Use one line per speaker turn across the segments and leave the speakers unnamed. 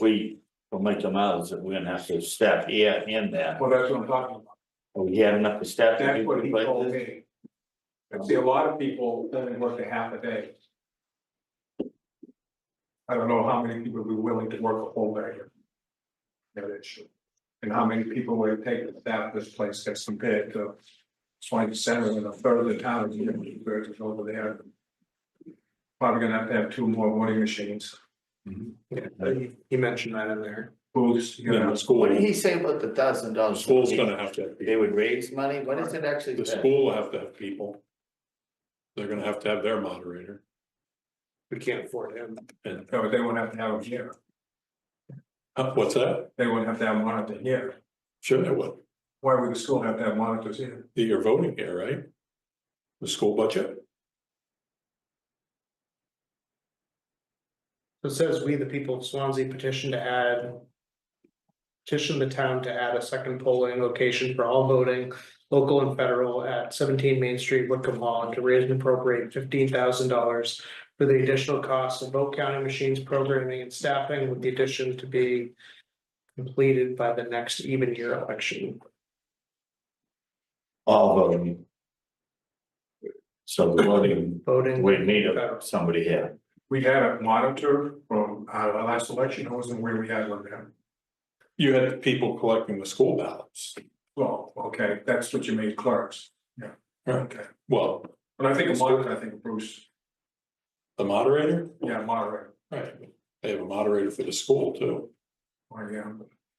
we, from like the miles, that we're gonna have to step here and there.
Well, that's what I'm talking about.
We had enough to step. to
That's
do
what he
like
told
this.
me. I see a lot of people only work a half a day. I don't know how many people would be willing to work a whole day. There it is. And how many people would it take to staff this place that's compared to twenty seven and a third of the town, you know, versus over there. Probably gonna have to have two more voting machines,
Yeah, he- he mentioned that in there.
booths, you know.
Yeah, the
What did
school,
he say about the thousand
the
dollars?
school's gonna have to have
They
people,
would raise money, what is it actually?
the
that-
school will have to have people. They're gonna have to have their moderator
We can't afford him.
and,
No, they won't have to have them here,
uh, what's that?
they won't have to have a monitor here,
Sure, they will.
why would the school have to have monitors here?
You're voting here, right? The school budget?
So It says we, the people of Swansea petition to add. Petition the town to add a second polling location for all voting, local and federal at seventeen Main Street, Wickham Hall, and to raise and appropriate fifteen thousand dollars. For the additional costs of vote counting machines, programming and staffing with the addition to be. Completed by the next even year election.
All voting. So the voting,
Voting.
we need a- somebody here.
We had a monitor from uh, our last election, it wasn't where we had one there.
You had the people collecting the school ballots.
Well, okay, that's what you made clerks. Yeah. Okay,
Well,
but I think a monitor, I think Bruce,
the moderator?
yeah, moderator,
Right. They have a moderator for the school too.
or Oh, yeah.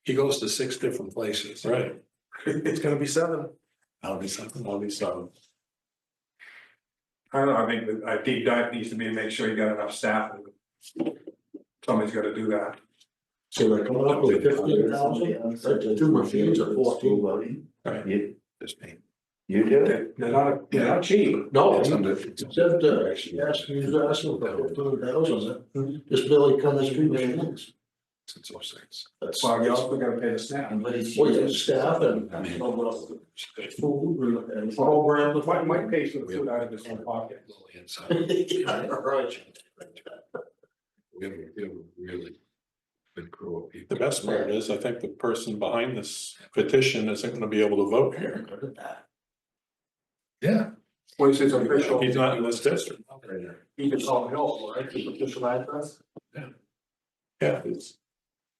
He goes to six different places. Right.
It's gonna be seven.
I'll be something, I'll be something.
I don't know, I think that a deep dive needs to be to make sure you got enough staff. Somebody's gotta do that.
So they're coming up with fifteen thousand, two machines or
School
fourteen.
voting,
Right.
you,
Just me.
you do it?
They're they're not, they're not cheap.
No, it's under. Except, Oh, uh, she asked, he was asking for fifteen thousand, Dus this Billy Cummings three machines.
Since oh six.
That's
Well, you also gotta pay the staff.
And what is?
What you staff and, and food and program.
Mike, Mike pays for the food out of his own pocket.
Yeah, right.
We have, we have a really good crew of
The
people.
best part is, I think the person behind this petition isn't gonna be able to vote here.
Yeah. Oh,
What is his official,
He's not in this district.
he can call help, right, his official address?
Yeah, it's.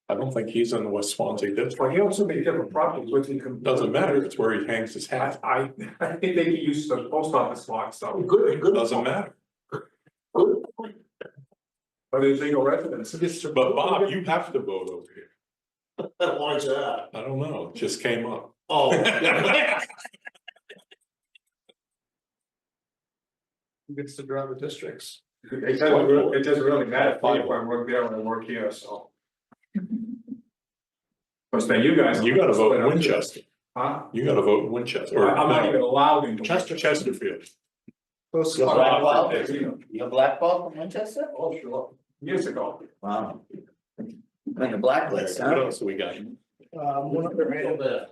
I don't think he's in the West Swansea district.
Well, he owns so many different properties, which he can.
Doesn't matter. It's where he hangs his
I,
hat.
I, I think they could use the post office box though,
Good, good.
Doesn't matter.
Good.
but it's legal residence.
But Bob, you have to vote over here.
Why is that?
I don't know. It just came up.
Oh.
Gets to draw the districts.
It doesn't, re- it doesn't really matter if I work there or I work here, so. But then you guys.
You gotta vote in Winchester.
Huh?
You gotta vote in Winchester.
I-
or
I'm not
no,
even allowed into.
Chester, Chesterfield.
Close
You're
enough.
blackballed, you're blackballed from Winchester?
Oh, sure, years ago.
Wow. Like a blacklist,
What
huh?
else we got?
Um, one other item,
bad.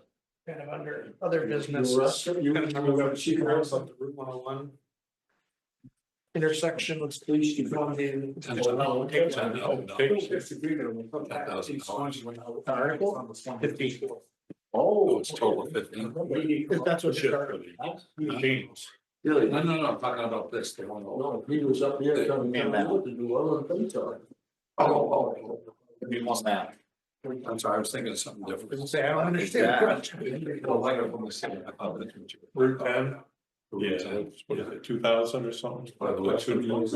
kind of under other business.
You're right.
You can remember that she was on the Route one oh one. Intersection with police department.
Oh,
I
take-
disagree that we'll come back to these ones when I-
Article? Fifty.
Oh, it's total of fifteen.
If that's what
Shit,
you're.
really. James.
Really?
No, no, no, I'm talking about this, the one. oh,
No, he was up here coming down the road to do other things on it.
oh, oh,
You want that?
oh. I'm sorry, I was thinking of something different.
People say, I don't understand.
Oh, I got one more second. I thought that's what you-
Route ten. Yeah, what is it, two thousand or something?
By the way, it's gonna be-
I
I was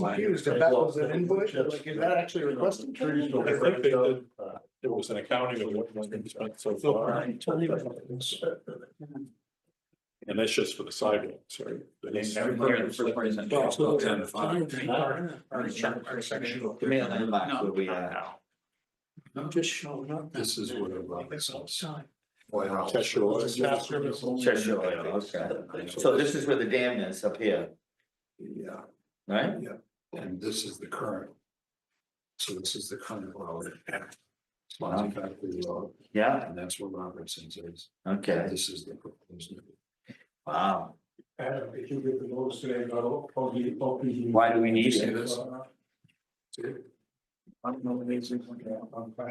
confused if that was an invoice, or like, is that actually requested?
Trees don't-
think they did, it was an accounting of what's been spent so far, and that's just for the sidewalks, right? That's-
Well, it's about ten to five.
Give me a landmark where we are now.
I'm just showing up. This is what a Robinson's. Wow.
Cheshire Oil.
Cheshire Oil, okay. So this is where the dam is up here,
Yeah,
right?
and this is the current. So this is the current road. Swansea Factory Road,
Yeah,
and that's where Robertson's is.
okay,
This is the proposed. new-
wow.
Adam, if you get the notice today, I'll, I'll be, I'll be.
Why do we need
See
it?
this? See it? I'm nominating, I'm